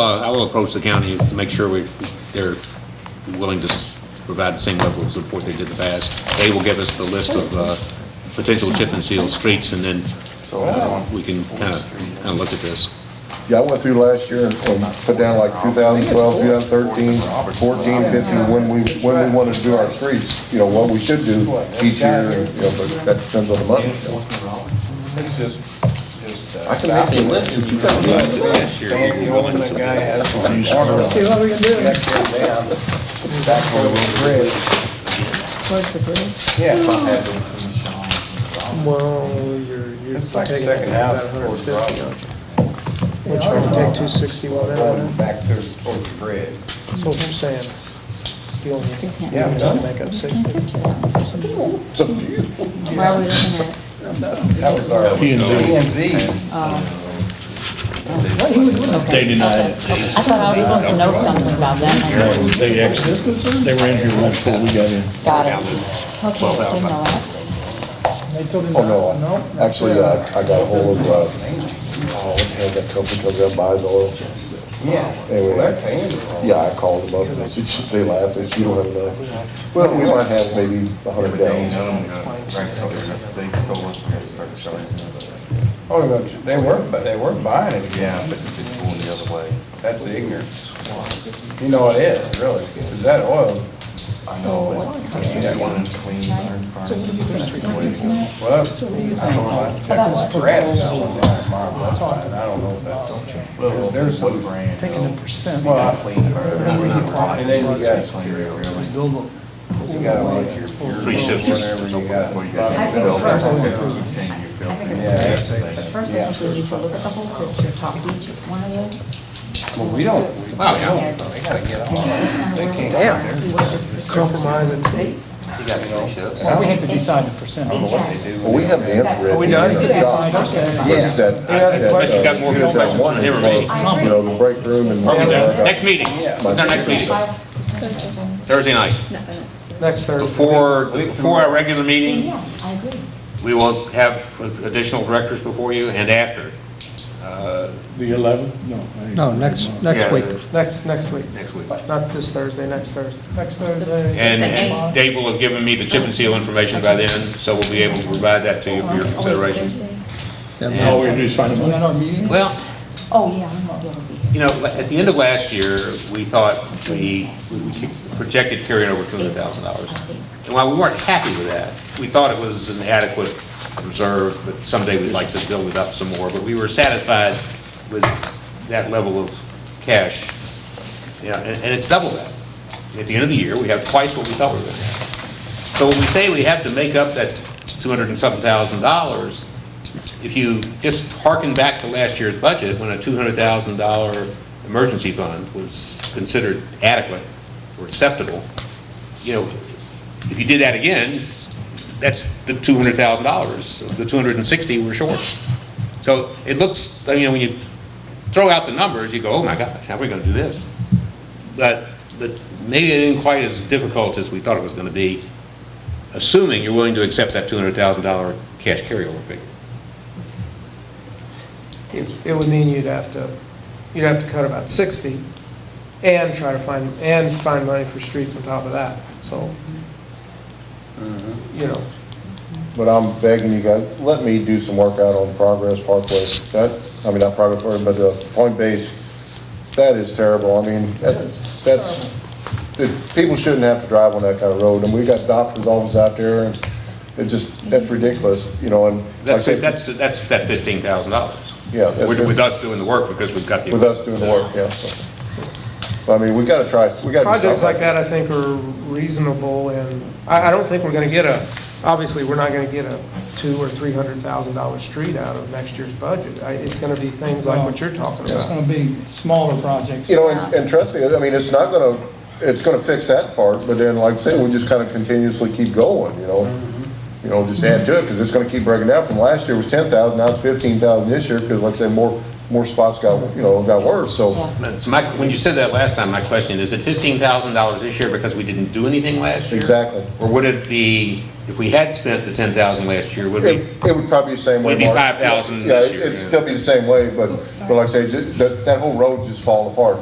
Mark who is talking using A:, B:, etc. A: Uh, I will approach the county to make sure we, they're willing to s- provide the same level of support they did in the past. They will give us the list of, uh, potential chip and seal streets, and then uh, we can kind of, kind of look at this.
B: Yeah, I went through last year and and put down like 2012, 2013, 14, 15, when we, when we wanted to do our streets, you know, what we should do each year, you know, but that depends on the money.
C: It's just, just, uh,
B: I can make you a list, but you gotta do it.
A: Last year,
C: the only that guy has one corner
D: See what we can do. Where's
C: back on the bridge.
D: the bridge?
C: Yeah.
D: Well, you're, you're
C: It's like
D: taking
C: second
D: out
C: house
D: about hundred
C: towards
D: fifty, aren't you? Which you can take two sixty-one out
C: Going
D: of it.
C: back there toward the bridge.
D: So what you're saying, you only,
C: Yeah, I'm
D: you
C: done.
D: only make up sixty?
B: It's up to you.
E: Why are we looking at,
C: That was our. P and Z.
E: oh,
F: They denied it.
E: I thought I was supposed to know something about that.
F: They actually, they were in here right before we got in.
E: Got it. Okay, didn't know
B: Oh,
E: that.
B: no, I- actually, I, I got ahold of, uh, oh, what the hell, that company comes out and buys oil.
C: Yeah. Well, that
B: Anyway,
C: thing is-
B: yeah, I called them up and they said, they laughed, they said, you don't have enough. Well, we might have maybe 100 gallons.
C: Oh, no, they were, but they were buying it again. It's going the other way. That's ignorance. You know it is, really. Is that oil?
E: So what's
C: Well, I don't know. That's red, that one, that's mine, that's mine. I don't know if that's. There's some brand.
D: Taking the percent.
C: Well, I- And then you got, you got all your.
F: Three shifts.
C: Whatever you got.
E: I think first, I think
C: Yeah.
E: it's, first I think we need to look at the whole picture, talk to each one of those.
C: Well, we don't, we
A: Wow, yeah.
C: don't, they gotta get all. They can't.
E: Damn. See what this percentage.
D: Compromise at eight.
C: We have to decide the percent. I don't know what they do.
B: Well, we have the infrared.
C: Are we
B: in
C: done?
B: the shop.
C: Yeah.
B: That-
C: Any other
B: that,
C: questions?
B: uh,
C: You
A: got more
B: unit that
A: questions
B: one
A: than ever
B: is,
A: me.
B: uh, You know, the break room and.
A: Next meeting, what's our next meeting?
E: Five percent is on-
A: Thursday night.
D: Next Thursday.
A: Before, before our regular meeting,
E: Yeah, I agree.
A: we will have additional directors before you and after, uh,
F: The eleventh? No. I ain't-
G: No, next,
A: Yeah.
G: next week.
D: Next, next week,
A: next week.
D: not this Thursday, next Thursday. Next
A: And-
D: Thursday.
A: And Dave will have given me the chip and seal information by then, so we'll be able to provide that to you for your consideration.
G: Yeah,
F: All we do is find them.
A: Well,
E: Oh, yeah, I'm not gonna be here.
A: you know, at the end of last year, we thought we we projected carrying over $200,000. And while we weren't happy with that, we thought it was an adequate reserve, but someday we'd like to build it up some more. But we were satisfied with that level of cash. Yeah, and and it's double that. At the end of the year, we have twice what we thought we were going to have. So when we say we have to make up that 200 and something thousand dollars, if you just harken back to last year's budget, when a $200,000 emergency fund was considered adequate or acceptable, you know, if you did that again, that's the $200,000, of the 260 we're short. So it looks, I mean, when you throw out the numbers, you go, oh my gosh, how are we going to do this? But, but maybe it isn't quite as difficult as we thought it was going to be, assuming you're willing to accept that $200,000 cash carryover figure.
D: It it would mean you'd have to, you'd have to cut about 60 and try to find, and find money for streets on top of that, so, you know.
B: But I'm begging you guys, let me do some work out on Progress Parkway. That, I mean, not Progress Parkway, but uh, Point Base, that is terrible. I mean, that- that's, the- people shouldn't have to drive on that kind of road. And we got doctor's office out there and it just, that's ridiculous, you know, and. like I
A: That's,
B: said,
A: that's, that's that fifteen thousand dollars.
B: Yeah, that's
A: With,
B: good.
A: with us doing the work, because we've got the.
B: With us doing the work, yeah. so. But, I mean, we gotta try, we gotta. do
D: Projects like
B: something.
D: that, I think, are reasonable, and I, I don't think we're gonna get a, obviously, we're not gonna get a two or $300,000 street out of next year's budget. I- It's gonna be things like what you're talking
B: Yeah.
D: about.
H: It's going to be smaller projects.
B: You know, and, and trust me, I mean, it's not gonna, it's gonna fix that part, but then, like I said, we just kinda continuously keep going, you know? You know, just add to it, because it's gonna keep breaking down, from last year was ten thousand, now it's fifteen thousand this year, because like I said, more, more spots got, you know, got worse, so.
E: Yeah.
A: That's my, when you said that last time, my question, is it fifteen thousand dollars this year because we didn't do anything last year?
B: Exactly.
A: Or would it be if we had spent the ten thousand last year, would we?
B: It it would probably be the same way.
A: Would be
B: Mark.
A: 5,000
B: Yeah,
A: this year,
B: it'd
A: yeah.
B: still be the same way, but, but like I say, ju- that, that whole road just falling apart.